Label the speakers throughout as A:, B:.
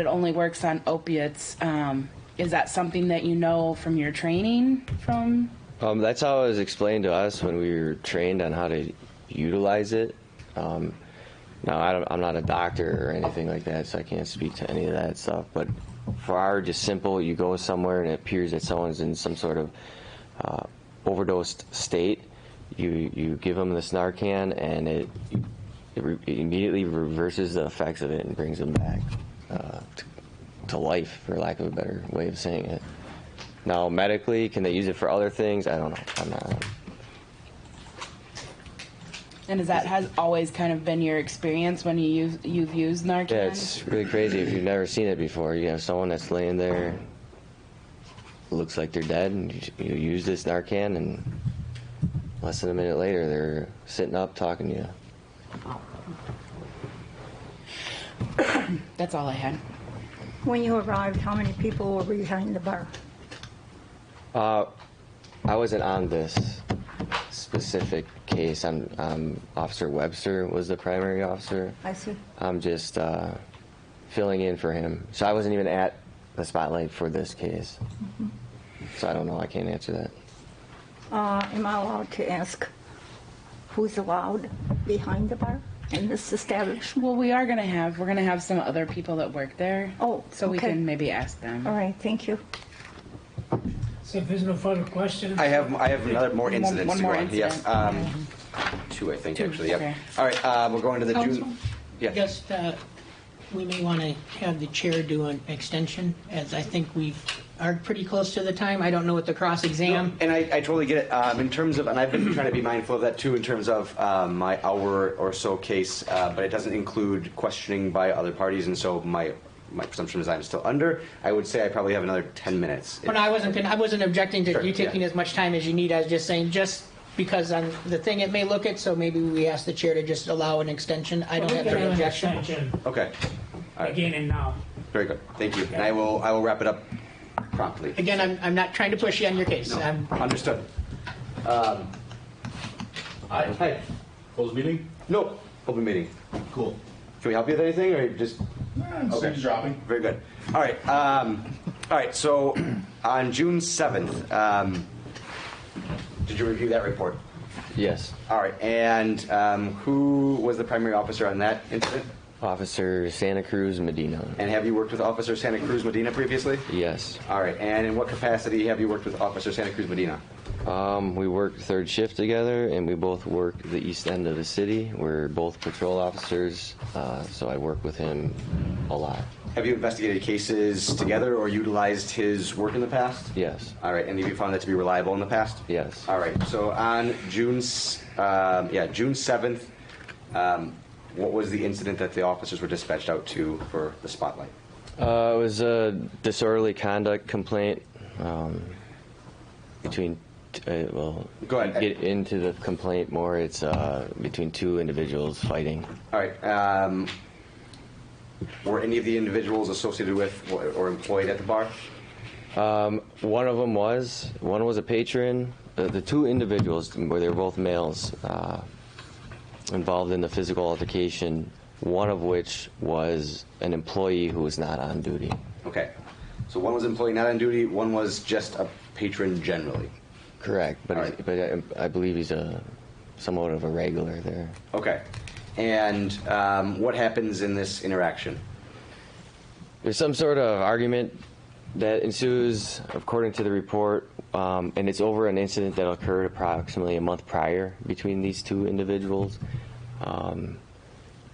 A: It only works on opiates. Um, is that something that you know from your training? From
B: Um, that's how it was explained to us when we were trained on how to utilize it. Um, now, I don't, I'm not a doctor or anything like that, so I can't speak to any of that stuff. But for our just simple, you go somewhere and it appears that someone's in some sort of uh, overdosed state. You you give them this Narcan and it, it re- immediately reverses the effects of it and brings them back uh, to, to life, for lack of a better way of saying it. Now, medically, can they use it for other things? I don't know. I'm not.
A: and is that has always kind of been your experience when you use you've used Narcan?
B: Yeah, it's really crazy if you've never seen it before. You have someone that's laying there, looks like they're dead, and you, you use this Narcan, and less than a minute later, they're sitting up talking to you.
A: That's all I had.
C: When you arrived, how many people were behind the bar?
B: Uh, I wasn't on this specific case. I'm, um, Officer Webster was the primary officer.
C: I see.
B: I'm just uh, filling in for him. So I wasn't even at the spotlight for this case. So I don't know. I can't answer that.
C: Uh, Am I allowed to ask who's allowed behind the bar in this establishment?
A: Well, we are gonna have we're gonna have some other people that work there.
C: Oh,
A: so we
C: okay.
A: can maybe ask them.
C: All right, thank you.
D: So if there's no further questions?
E: I have, I have another, more incidents
A: one
E: to
A: more
E: go on. Yes,
A: incident.
E: um, two, I think, actually,
A: okay.
E: yep. All right, uh, we're going to the
D: Council?
E: June.
D: I
E: Yes,
D: guess uh, we may want to have the chair do an extension, as I think we are pretty close to the time. I don't know what the cross-exam.
E: and I, I totally get it, um, in terms of, and I've been trying to be mindful of that too, in terms of, um, my hour or so case, uh, but it doesn't include questioning by other parties, and so my, my presumption is I'm still under. I would say I probably have another ten minutes.
D: But I wasn't, gonna- I wasn't objecting to
E: Sure,
D: you taking
E: yeah.
D: as much time as you need. I was just saying, just because on the thing, it may look it, so maybe we ask the chair to just allow an extension. I don't have
F: Get
D: an
F: an
D: objection.
F: extension
E: Okay,
F: again and now.
E: very good, thank you, and I will, I will wrap it up promptly.
D: Again, I'm, I'm not trying to push you on your case. I'm-
E: Understood. Um,
G: Hi. Hi. Closed meeting?
E: No, open meeting.
G: Cool.
E: Can we help you with anything, or just?
G: Okay. Dropping.
E: Very good. All right. Um, all right. So on June 7th, um, did you review that report?
B: Yes.
E: All right. And um, who was the primary officer on that incident?
B: Officer Santa Cruz Medina.
E: And have you worked with Officer Santa Cruz Medina previously?
B: Yes.
E: All right. And in what capacity have you worked with Officer Santa Cruz Medina?
B: Um, we work third shift together, and we both work the east end of the city. We're both patrol officers, uh, so I work with him a lot.
E: Have you investigated cases together or utilized his work in the past?
B: Yes.
E: All right, and have you found that to be reliable in the past?
B: Yes.
E: All right. So on June, s- um, yeah, June seventh, um, what was the incident that the officers were dispatched out to for the spotlight?
B: Uh, it was a disorderly conduct complaint um, between. t- Uh, well,
E: Go ahead.
B: Get into the complaint more. It's uh, between two individuals fighting.
E: All right. Um, were any of the individuals associated with or or employed at the bar?
B: One of them was one was a patron. The, the two individuals were they were both males uh, involved in the physical altercation. One of which was an employee who was not on duty.
E: Okay. So one was employee not on duty. One was just a patron generally.
B: Correct, but
E: All
B: he's- but I, I believe he's a somewhat of a regular there.
E: Okay. And um, what happens in this interaction?
B: There's some sort of argument that ensues, according to the report, um, and it's over an incident that occurred approximately a month prior between these two individuals, um,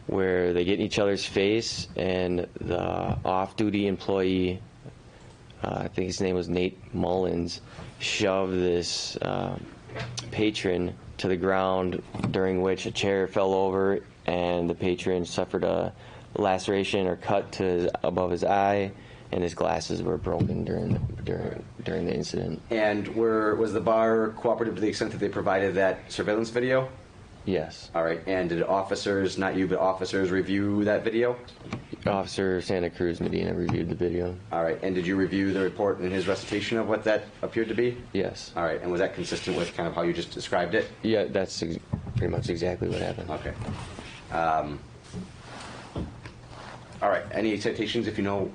B: where they get in each other's face, and the off-duty employee, uh, I think his name was Nate Mullins, shoved this uh, patron to the ground, during which a chair fell over, and the patron suffered a laceration or cut to his, above his eye, and his glasses were broken during the, during during the incident.
E: And were was the bar cooperative to the extent that they provided that surveillance video?
B: Yes,
E: All right. And did officers, not you, but officers, review that video?
B: Officer Santa Cruz Medina reviewed the video.
E: All right. And did you review the report and his recitation of what that appeared to be?
B: Yes,
E: All right. And was that consistent with kind of how you just described it?
B: yeah, that's ex-
E: Um,
B: pretty much exactly what happened.
E: Okay. Um, All right, any citations if you know,